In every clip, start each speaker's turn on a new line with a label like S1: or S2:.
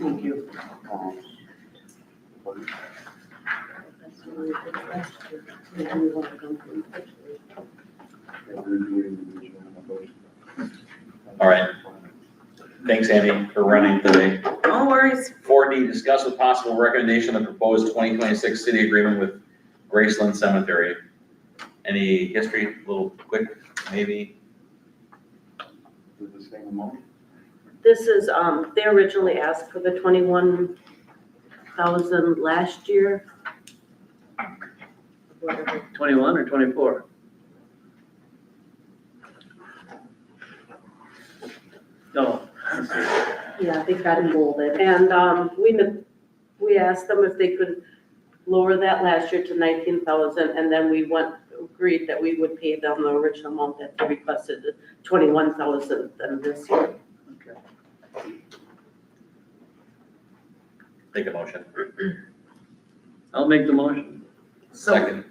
S1: Thank you.
S2: All right. Thanks, Andy, for running today.
S1: No worries.
S2: Four D, discuss with possible recommendation the proposed twenty twenty-six city agreement with Graceland Cemetery. Any history, little quick, maybe?
S3: The same amount?
S4: This is, um, they originally asked for the twenty-one thousand last year. Whatever.
S1: Twenty-one or twenty-four? No.
S4: Yeah, they got it molded. And, um, we, ne- we asked them if they could lower that last year to nineteen thousand, and then we went, agreed that we would pay them the original amount that they requested, twenty-one thousand, and this year.
S1: Okay.
S2: Take a motion.
S1: I'll make the motion.
S5: So,
S2: Second.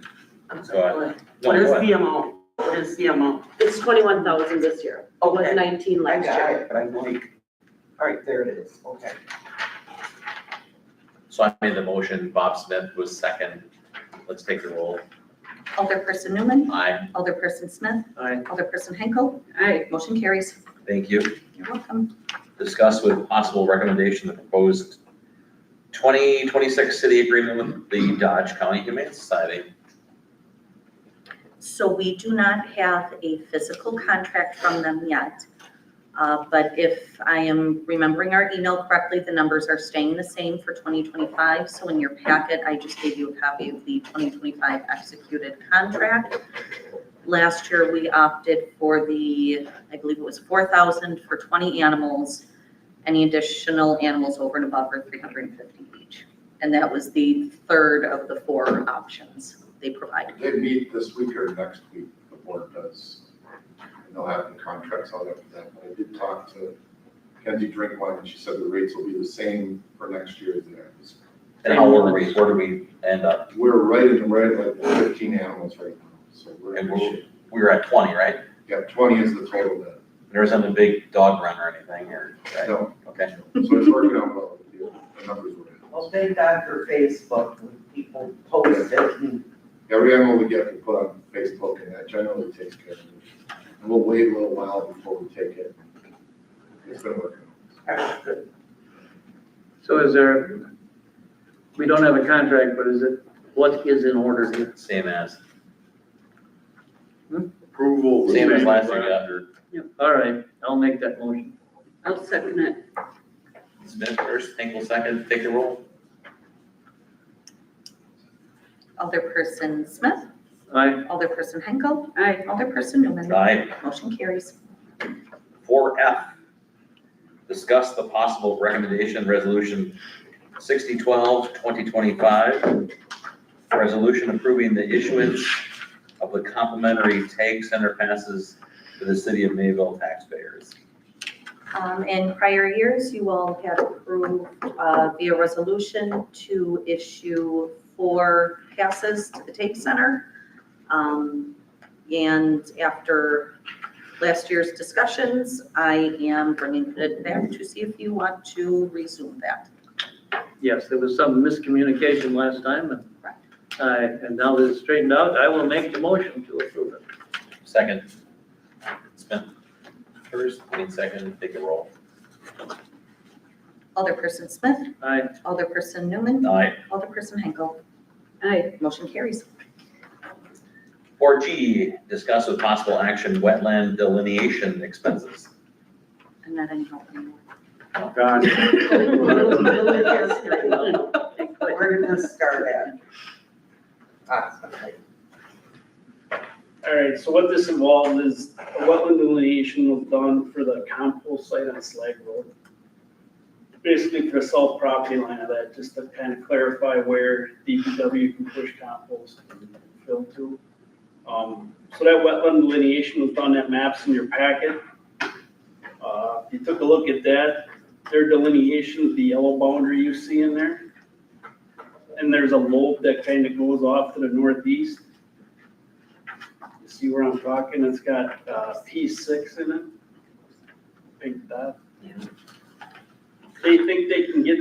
S5: I'm
S2: Go
S5: sorry,
S2: No,
S5: what is
S2: go ahead.
S5: the amount? What is the amount?
S4: It's twenty-one thousand this year, it was
S5: Okay.
S4: nineteen
S5: I
S4: last
S5: got
S4: year.
S5: it, Oh, but I'm like, all right, there it is, okay.
S2: So I made the motion, Bob Smith was second. Let's take the roll.
S6: Alderperson Newman,
S2: Aye,
S6: Alderperson Smith,
S1: Aye.
S6: Alderperson Henkel,
S4: Aye.
S6: motion carries.
S2: thank you.
S6: You're welcome.
S2: discuss with possible recommendation the proposed twenty twenty-six city agreement with the Dodge County Humane Society.
S6: So we do not have a physical contract from them yet. Uh, But if I am remembering our email correctly, the numbers are staying the same for 2025. So in your packet, I just gave you a copy of the 2025 executed contract. Last year, we opted for the, I believe it was 4,000 for 20 animals. Any additional animals over and above are 350 each. And that was the third of the four options they provided.
S7: They meet this week or next week, the board does. And they'll have the contracts out after that, but I did talk to Kenzie Drinkwine, and she said the rates will be the same for next year as they are this year.
S2: And how old are we, where do we end up?
S7: We're right in, right at like fifteen animals right now, so we're in good shape.
S2: We were at twenty, right?
S7: Yeah, twenty is the total then.
S2: There wasn't a big dog run or anything or, right?
S7: No,
S2: Okay,
S7: so it's working out well, the numbers were
S5: Well,
S7: in.
S5: thank God for Facebook, when people post it and
S7: Every animal we get, we put on Facebook, and that generally takes care of it. And we'll wait a little while before we take it. It's been working.
S5: that's good.
S1: So is there, we don't have a contract, but is it, what is in order here?
S2: same as,
S3: Approval.
S2: same as last year, after
S1: All right, I'll make that motion.
S4: I'll second it.
S2: Smith first, Hinkle second, take the roll.
S6: Alderperson Smith,
S1: Aye.
S6: Alderperson Henkel,
S4: Aye.
S6: Alderperson Newman.
S2: Aye,
S6: Motion carries.
S2: four F. Discuss the possible recommendation, resolution 6012 2025. Resolution approving the issuance of the complimentary tag center passes to the city of Mayville taxpayers.
S6: Um, In prior years, you all have approved uh, via resolution to issue four passes to the TAPE Center. Um, And after last year's discussions, I am bringing it back to see if you want to resume that.
S1: Yes, there was some miscommunication last time and
S6: Correct.
S1: I, and now that it's straightened out, I will make the motion to approve it.
S2: Second. Smith first, Wayne second, take a roll.
S6: Alderperson Smith,
S1: Aye.
S6: Alderperson Newman,
S2: Aye.
S6: Alderperson Henkel,
S4: Aye.
S6: motion carries.
S2: Four G, discuss with possible action wetland delineation expenses.
S6: I'm not any help anymore.
S5: Where did this start at? Possibly.
S8: All right, so what this involved is a wetland delineation was done for the compost site on Slag Road. Basically for the south property line of that, just to kind of clarify where DPW can push compost and fill to. Um, so that wetland delineation was done, that map's in your packet. Uh, if you took a look at that, their delineation, the yellow boundary you see in there. And there's a lobe that kind of goes off to the northeast. You see where I'm talking? It's got uh, P6 in it. Pink dot. They think they can get